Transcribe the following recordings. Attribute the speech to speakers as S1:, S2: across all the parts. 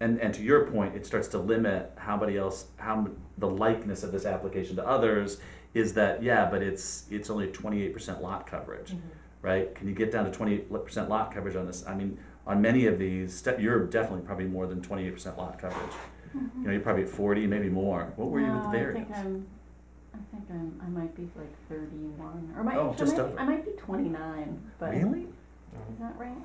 S1: and and to your point, it starts to limit how many else how m- the likeness of this application to others is that yeah, but it's it's only twenty eight percent lot coverage, right? Can you get down to twenty eight percent lot coverage on this? I mean, on many of these, ste- you're definitely probably more than twenty eight percent lot coverage. You know, you're probably at forty, maybe more. What were you with the
S2: No,
S1: variance?
S2: I think I'm, I think I'm, I might be like thirty-one, or might,
S1: Oh,
S2: actually,
S1: just
S2: I might,
S1: over.
S2: I might be twenty-nine, but is
S1: really?
S2: that right?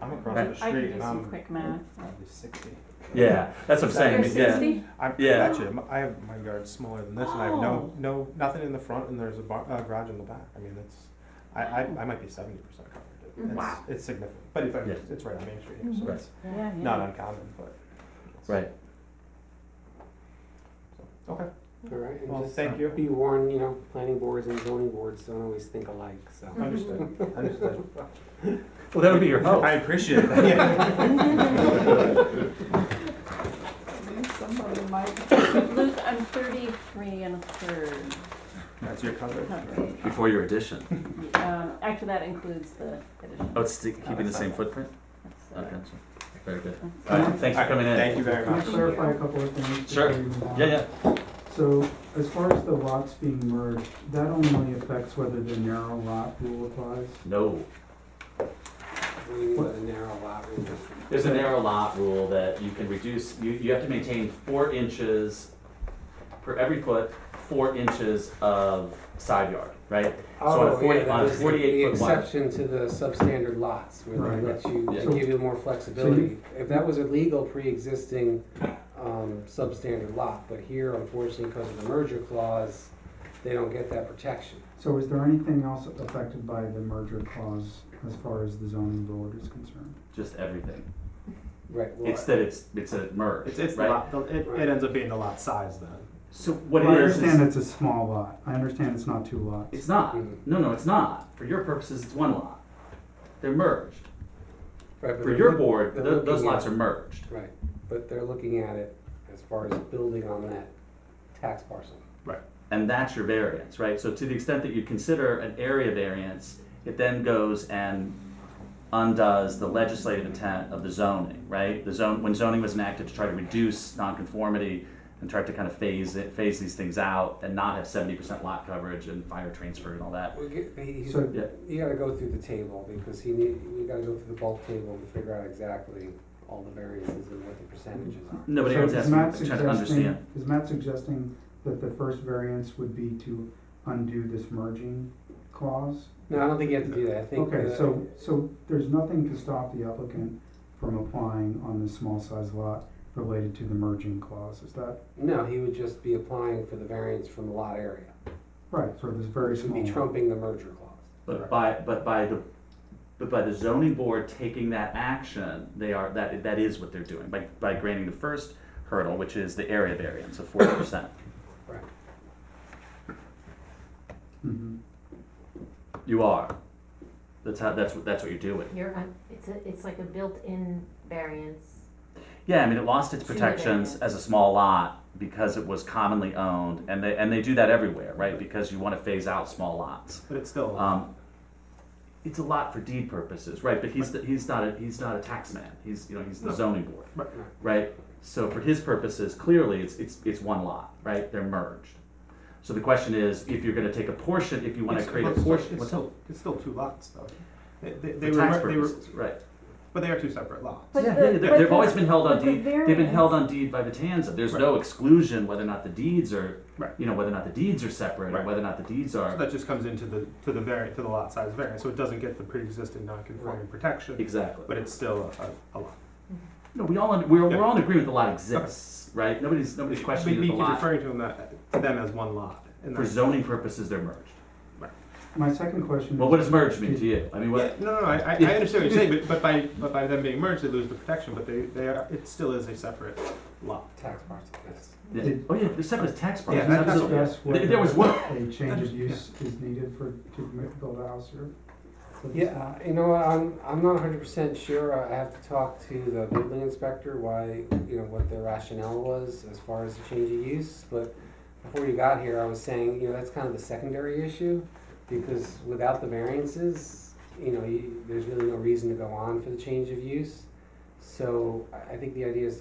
S3: I'm across the
S2: I can
S3: street
S2: do
S3: and
S2: some
S3: I'm
S2: quick math.
S3: probably sixty.
S1: Yeah, that's what I'm
S2: You're
S1: saying. yeah.
S2: sixty?
S3: I'm,
S1: Yeah.
S3: actually, I'm- I have, my yard's smaller than this and I have no,
S2: Oh.
S3: no, nothing in the front and there's a bar, uh, garage in the back. I mean, it's, I, I, I might be seventy percent
S2: Mm.
S3: covered. It's-
S1: Wow.
S3: It's significant, but it's,
S1: Yeah.
S3: it's right on Main Street here,
S2: Mhm.
S3: so
S1: Right.
S3: it's
S2: Yeah, yeah.
S3: not uncommon, but. it's-
S1: Right.
S3: so, Okay.
S4: All right,
S3: Well,
S4: and just
S5: uh,
S3: thank you.
S4: be warned, you know, planning boards and zoning boards don't always think alike, so.
S3: Mm-hmm. Understood, understood.
S1: Well, that would be your hope.
S3: I appreciate that, yeah.
S2: Somebody might. Luke, I'm thirty-three and a third
S3: That's your coverage.
S2: coverage.
S1: Before your addition.
S2: Um, actually, that includes the addition.
S1: Oh, it's sti- keeping the same footprint?
S2: That's, uh,
S1: Okay. Very good.
S2: that's-
S1: All right, thanks for
S3: All right,
S1: coming in.
S3: Thank you very
S5: Can I
S3: much.
S5: clarify a couple of things?
S1: Sure.
S5: before we move on?
S1: Yeah, yeah.
S5: So as far as the lots being merged, that only affects whether the narrow lot rule applies?
S1: No.
S4: What do you mean by the narrow lot rule?
S1: There's a narrow lot rule that you can reduce, you, you have to maintain four inches per every foot, four inches of side yard, right? So on a
S4: Oh,
S1: forty,
S4: yeah,
S1: on a
S4: that is the-
S1: forty-eight foot
S4: The
S1: wide.
S4: exception to the substandard lots, where
S5: Right.
S4: they let you,
S1: Yeah.
S4: they give you more flexibility. If that was a legal pre-existing, um, substandard lot, but here unfortunately, because of the merger clause, they don't get that protection.
S5: So is there anything else affected by the merger clause as far as the zoning board is concerned?
S1: Just everything.
S4: Right, well,
S1: It's that it's, it's a merge,
S3: It's, it's the
S1: right?
S3: lot, the- it, it ends up being the lot size then.
S1: So what
S5: Well, I
S1: it is,
S5: understand
S1: is,
S5: it's a small lot. I understand it's not two lots.
S1: it's not,
S4: Mhm.
S1: no, no, it's not. For your purposes, it's one lot. They're merged.
S4: right, but
S1: For
S4: they're
S1: your
S4: look-
S1: board,
S4: they're
S1: tho- those
S4: looking at-
S1: lots are merged.
S4: Right, but they're looking at it as far as building on that tax parcel.
S1: and that's your variance, right? So to the extent that you consider an area variance, it then goes and undoes the legislative intent of the zoning, right? The zone, when zoning was enacted to try to reduce nonconformity and try to kind of phase it, phase these things out and not have seventy percent lot coverage and fire transfer and all that.
S4: We get- he- he's-
S5: So-
S1: Yeah.
S4: You gotta go through the table, because he need, we gotta go through the bulk table and figure out exactly all the variances and what the percentages are.
S1: No, but
S5: So
S1: everyone's
S5: is
S1: asking,
S5: Matt
S1: I'm trying to
S5: suggesting-
S1: understand.
S5: Is Matt suggesting that the first variance would be to undo this merging clause?
S4: No, I don't think you have to do that, I think. uh,
S5: Okay,
S4: the-
S5: so, so there's nothing to stop the applicant from applying on the small size lot related to the merging clause, is that?
S4: No, he would just be applying for the variance from the lot area,
S5: Right, so this very
S4: which would be
S5: small. lot.
S4: trumping the merger clause.
S1: But by, but by the, but by the zoning board taking that action, they are, that, that is what they're doing, by, by granting the first hurdle, which is the area variance of forty percent.
S4: Right.
S5: Mhm.
S1: You are. That's how. That's what. That's what you're doing.
S6: You're, un- it's a, it's like a built-in variance.
S1: Yeah, I mean, it lost its
S6: Two
S1: protections
S6: variants.
S1: as a small lot because it was commonly owned, and they and they do that everywhere, right? Because you want to phase out small lots.
S3: But it's still,
S1: Um, it's a lot for deed purposes, right? But he's the, he's not a, he's not a tax man. He's you know he's the zoning board,
S3: Right.
S1: right? So for his purposes, clearly it's it's it's one lot, right? They're merged. So the question is, if you're going to take a portion, if you want to
S3: It's-
S1: create a
S3: it's still-
S1: portion,
S3: It's
S1: what's up?
S3: still, it's still two lots though. They, they, they
S1: For
S3: were,
S1: tax
S3: they were,
S1: purposes, right?
S3: but they are two separate lots.
S2: But
S1: yeah,
S2: the-
S1: yeah, they're,
S2: but
S1: they've
S2: the-
S1: always been held on
S2: but the
S1: deed. they've been
S2: variance-
S1: held on deed by Vitanza. There's no exclusion whether or not the deeds are,
S3: Right.
S1: you know, whether or not the deeds are separate or
S3: Right.
S1: whether or not the deeds are
S3: So that just comes into the, to the vari, to the lot size variance, so it doesn't get the pre-existing non-conforming protection,
S1: exactly.
S3: but it's still a, a, a lot.
S1: no, we all we're,
S3: Yeah.
S1: we're all in agreement the lot exists, right? Nobody's nobody's questioning
S3: We,
S1: that
S3: we
S1: the
S3: keep
S1: lot
S3: referring to them, that- to them as one lot. and
S1: for
S3: that's-
S1: zoning purposes they're merged.
S5: My second question.
S1: Well, what does merge mean to you? I mean,
S3: Yeah,
S1: what?
S3: no, no, no, I, I I understand what you're saying, but, but by, but by them being merged, they lose the protection, but they, they are, it still is a separate lot.
S4: Tax parcel, yes.
S1: yeah.
S5: Did-
S1: Oh yeah, they're separate as tax
S3: Yeah,
S1: parcels.
S3: that- that's-
S5: Can you
S1: absolutely.
S5: discuss
S1: There- there was one.
S5: whether A change of
S3: That's-
S5: use is needed for, to m- build a house here? for this?
S4: Yeah, uh, you know, what, I'm, I'm not hundred percent sure, I have to talk to the building inspector, why, you know, what their rationale was as far as the change of use, but before you got here, I was saying, you know, that's kind of the secondary issue, because without the variances, you know, you, there's really no reason to go on for the change of use. So I, I think the idea is to